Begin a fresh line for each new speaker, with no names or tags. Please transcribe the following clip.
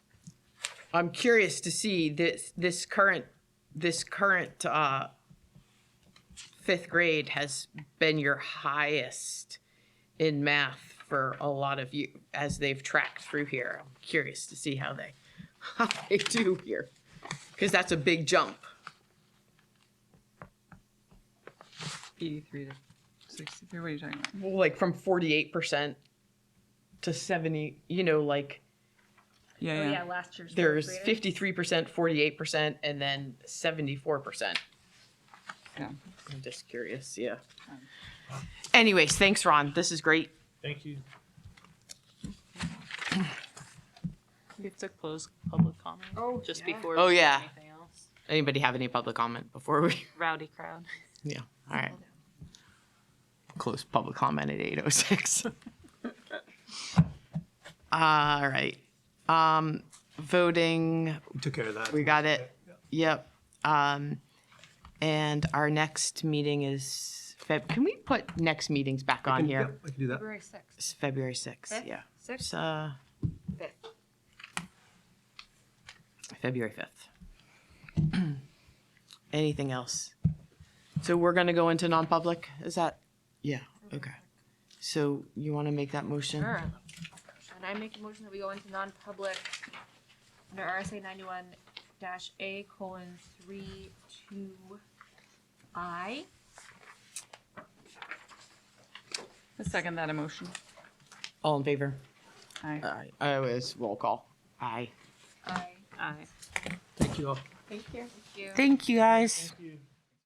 I'm curious to see this, this current, this current, uh, fifth grade has been your highest in math for a lot of you, as they've tracked through here. I'm curious to see how they, how they do here, because that's a big jump.
Eighty-three to sixty-three, what are you talking about?
Well, like from 48% to 70, you know, like
Yeah,
Oh,
yeah.
yeah, last year's.
there's
fourth grader.
53%, 48%, and then 74%.
Yeah.
I'm just curious, yeah. Anyways, thanks, Ron. This is great.
Thank you.
We have to close public comment.
Oh,
Just
yeah.
before.
Oh,
we do
yeah.
Anything else?
Anybody have any public comment before we?
Rowdy crowd.
Yeah, all right. Close public comment at 8:06. All right. Um, Voting,
Took care of that.
We got it. Yep. Um, and our next meeting is Feb. Can we put next meetings back on here?
I can do that.
February sixth.
It's February sixth.
Fifth?
Yeah.
Sixth?
It's, uh,
Fifth.
February fifth. Anything else? So we're gonna go into non-public. Is that? Yeah. Okay. So you want to make that motion?
Sure. And I make a motion that we go into non-public under RSA ninety-one dash A colon three two I.
I second that emotion.
All in favor?
Aye.
All right. I was roll call. Aye.
I.
Aye.
Thank you all.
Thank you.
Thank you guys.
Thank you.